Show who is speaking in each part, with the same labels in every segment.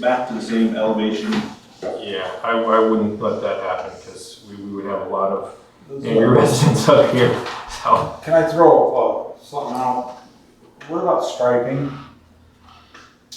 Speaker 1: back to the same elevation.
Speaker 2: Yeah, I, I wouldn't let that happen because we, we would have a lot of angry residents up here. So
Speaker 3: Can I throw uh, something out? What about striping?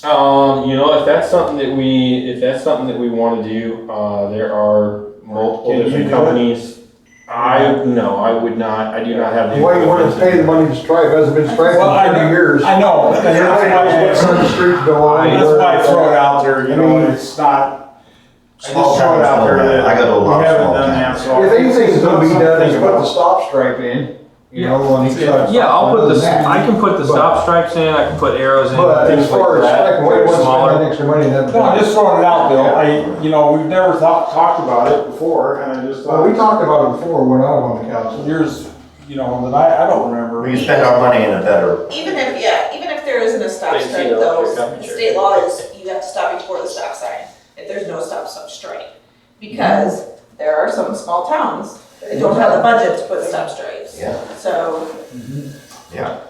Speaker 2: Um, you know, if that's something that we, if that's something that we want to do, uh, there are multiple
Speaker 3: Can you
Speaker 2: different
Speaker 3: do it?
Speaker 2: companies. I, no, I would not, I do not have the.
Speaker 4: Why you wanna pay the money to stripe, hasn't been striped
Speaker 3: Well, I-
Speaker 4: in thirty years.
Speaker 3: I know. but That's
Speaker 4: You're right, it's
Speaker 3: why
Speaker 4: on the street, go on.
Speaker 3: I- that's why I throw it out there, you know, and it's not. I just
Speaker 5: Small
Speaker 3: throw it out
Speaker 5: towns
Speaker 3: there
Speaker 5: don't have-
Speaker 3: that
Speaker 5: I got a lot
Speaker 3: We
Speaker 5: of
Speaker 3: haven't
Speaker 5: small
Speaker 3: done that,
Speaker 5: towns.
Speaker 3: so.
Speaker 4: If anything's gonna be done,
Speaker 3: Something
Speaker 4: just put the
Speaker 3: about-
Speaker 4: stop stripe in, you know, on each side.
Speaker 2: Yeah, I'll put the, I can put the stop stripes in, I can put arrows in,
Speaker 4: But
Speaker 2: things
Speaker 4: as
Speaker 2: like
Speaker 4: far as
Speaker 2: that.
Speaker 4: striping, we
Speaker 2: They're
Speaker 4: wouldn't spend
Speaker 2: smaller.
Speaker 4: that extra money in that.
Speaker 3: No, I'm just throwing it out, Bill. I, you know, we've never thought, talked about it before, and I just
Speaker 4: Well, we
Speaker 3: thought,
Speaker 4: talked about it before when I was on the council.
Speaker 3: years, you know, that I, I don't remember.
Speaker 5: We can spend our money in a better,
Speaker 6: Even if, yeah, even if there isn't a stop
Speaker 7: Thanks,
Speaker 6: sign
Speaker 7: you know,
Speaker 6: though,
Speaker 7: for coming, Jerry.
Speaker 6: state law is you have to stop before the stop sign. If there's no stop sign, strike. Because there are some small towns that don't have the budget to put stop stripes.
Speaker 5: Yeah.
Speaker 6: So,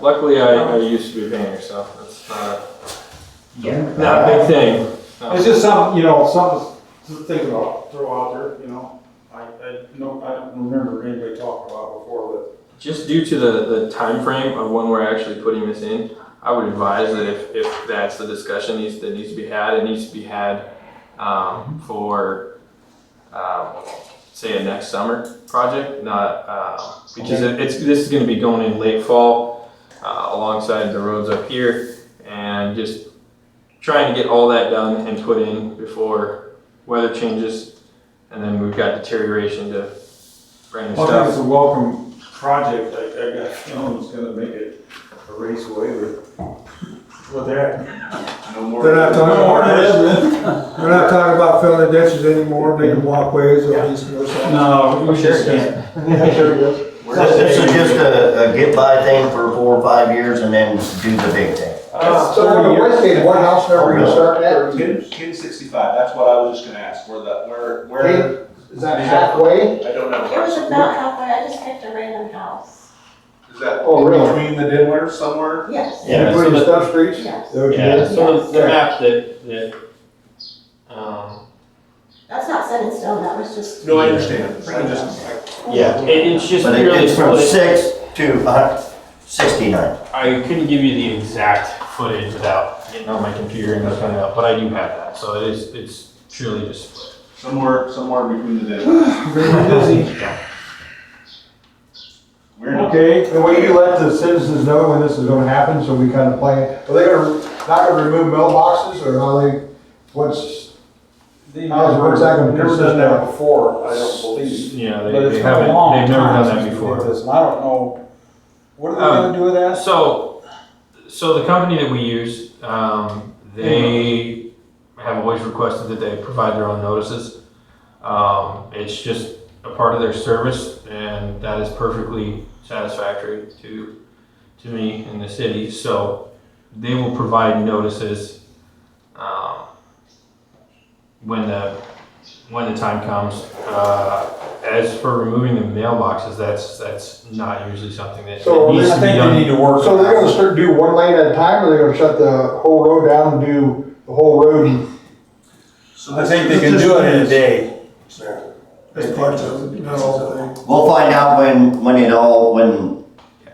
Speaker 2: Luckily, I, I used to be a painter, so that's not, a-
Speaker 5: yeah.
Speaker 2: not a big thing.
Speaker 3: It's just something, you know, something to think about, throw out there, you know. I, I, no, I don't remember anybody talking about before,
Speaker 2: Just due to the, the timeframe of when we're actually putting this in, I would advise that if, if that's the discussion needs, that needs to be had, it needs to be had, um, for, um, say a next summer project, not, uh, because it- it's, this is gonna be going in late fall, uh, alongside the roads up here, and just trying to get all that done and put in before weather changes, and then we've got deterioration to brand new
Speaker 3: but. I
Speaker 2: stuff.
Speaker 3: think it's a welcome project, I, I got a feeling it's gonna make it a raceway with, with that.
Speaker 1: No more.
Speaker 4: They're not talking
Speaker 3: No, it
Speaker 4: about,
Speaker 3: isn't.
Speaker 4: they're not talking about filling the ditches anymore, making walkways or these, you know, something.
Speaker 3: No, we
Speaker 2: Oh, sure
Speaker 3: just
Speaker 2: it does.
Speaker 3: can't.
Speaker 4: Yeah, sure, yes.
Speaker 5: This this is just a, a get by thing for four or five years and then do the big thing.
Speaker 3: Uh,
Speaker 4: So on the
Speaker 3: thirty years.
Speaker 4: west side, what house number you starting at?
Speaker 1: Kin, kin sixty-five, that's what I was just gonna ask, where the, where, where,
Speaker 4: Kin- Is that halfway?
Speaker 1: I don't know.
Speaker 8: It was about halfway, I just picked a random house.
Speaker 1: Is that
Speaker 4: Oh, really?
Speaker 1: between the Denver somewhere?
Speaker 8: Yes.
Speaker 4: You
Speaker 7: Yeah, so
Speaker 4: putting
Speaker 7: the-
Speaker 4: stuff streets?
Speaker 8: Yes.
Speaker 7: Yeah,
Speaker 4: Okay.
Speaker 7: so the, the map that, that, um,
Speaker 8: That's not set in stone, that was just.
Speaker 1: No, I understand, I just,
Speaker 7: yeah, it, it's just
Speaker 5: But it-
Speaker 7: really
Speaker 5: it's from
Speaker 7: split.
Speaker 5: six to uh, sixty-nine.
Speaker 7: I couldn't give you the exact footage without getting on my computer and looking it up, but I do have that, so it is, it's truly just split.
Speaker 1: somewhere, somewhere between the Denver.
Speaker 3: Very busy.
Speaker 1: We're not,
Speaker 3: Okay,
Speaker 4: And will you let the citizens know when this is gonna happen, so we kind of plan, are they gonna, not gonna remove mailboxes, or how they, what's,
Speaker 3: they
Speaker 4: How's
Speaker 3: never,
Speaker 4: it gonna
Speaker 3: never
Speaker 4: consist
Speaker 3: done that
Speaker 4: of?
Speaker 3: before, I don't believe.
Speaker 2: Yeah, they,
Speaker 3: But
Speaker 2: they
Speaker 3: it's been a
Speaker 2: haven't,
Speaker 3: long
Speaker 2: they've never
Speaker 3: time
Speaker 2: done that
Speaker 3: since we did
Speaker 2: before.
Speaker 3: this, and I don't know, what are they
Speaker 2: Um,
Speaker 3: gonna do with that?
Speaker 2: So, so the company that we use, um, they have always requested that they provide their own notices. Um, it's just a part of their service and that is perfectly satisfactory to, to me and the city. So they will provide notices, um, when the, when the time comes. Uh, as for removing the mailboxes, that's, that's not usually something that
Speaker 4: So
Speaker 2: that needs
Speaker 4: this
Speaker 3: I
Speaker 2: to be
Speaker 3: think
Speaker 2: done.
Speaker 3: they need to work.
Speaker 4: so
Speaker 3: on
Speaker 4: they're
Speaker 3: that.
Speaker 4: gonna start, do one lane at a time, or they're gonna shut the whole road down and do the whole road? in-
Speaker 3: I think they can do it in a day.
Speaker 4: As part of, not all the thing.
Speaker 5: We'll find out when, when it all, when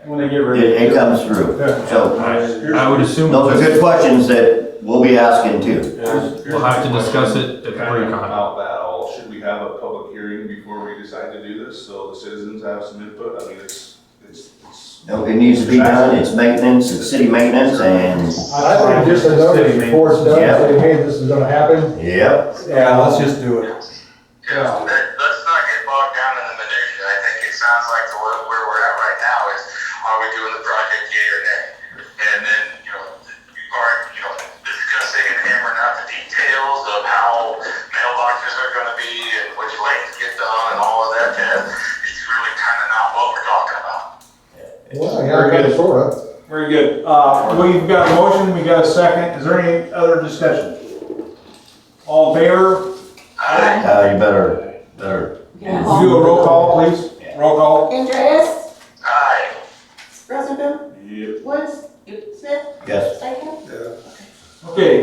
Speaker 3: When they get
Speaker 5: it,
Speaker 3: ready.
Speaker 5: it comes through.
Speaker 4: Yeah.
Speaker 5: So
Speaker 2: I I would assume
Speaker 5: those are
Speaker 2: we'll
Speaker 5: good questions that we'll be asking too.
Speaker 1: Here's- here's
Speaker 2: have to
Speaker 1: my
Speaker 2: discuss
Speaker 1: question.
Speaker 2: it at
Speaker 1: Kind of
Speaker 2: Recon.
Speaker 1: about that all, should we have a public hearing before we decide to do this, so the citizens have some input, I mean, it's, it's, it's.
Speaker 5: No, It needs to be done, it's maintenance, it's city maintenance and,
Speaker 4: I think just a notice before it's done,
Speaker 5: Yeah.
Speaker 4: saying, hey, this is gonna happen,
Speaker 5: yep,
Speaker 3: Yeah, let's just do it.
Speaker 9: Yeah,
Speaker 4: Yeah.
Speaker 9: let, let's not get bogged down in the minutia. I think it sounds like the, where, where we're at right now is, are we doing the project yay or nay? And then, you know, are, you know, discussing and hammering out the details of how mailboxes are gonna be and which lanes get done and all of that, uh, it's really kinda not what we're talking about.
Speaker 4: well, yeah, I got sort of.
Speaker 3: Very good. Uh, we've got a motion, we got a second. Is there any other discussion? All in favor?
Speaker 8: Hi.
Speaker 5: uh, you better, better,
Speaker 8: Yeah.
Speaker 3: We'll Do a roll call, please. Roll call.
Speaker 8: Andreas,
Speaker 9: Aye.
Speaker 8: Rosenbaum,
Speaker 1: Yep.
Speaker 8: Woods, Smith,
Speaker 5: yes.
Speaker 8: Stankin.
Speaker 3: Okay,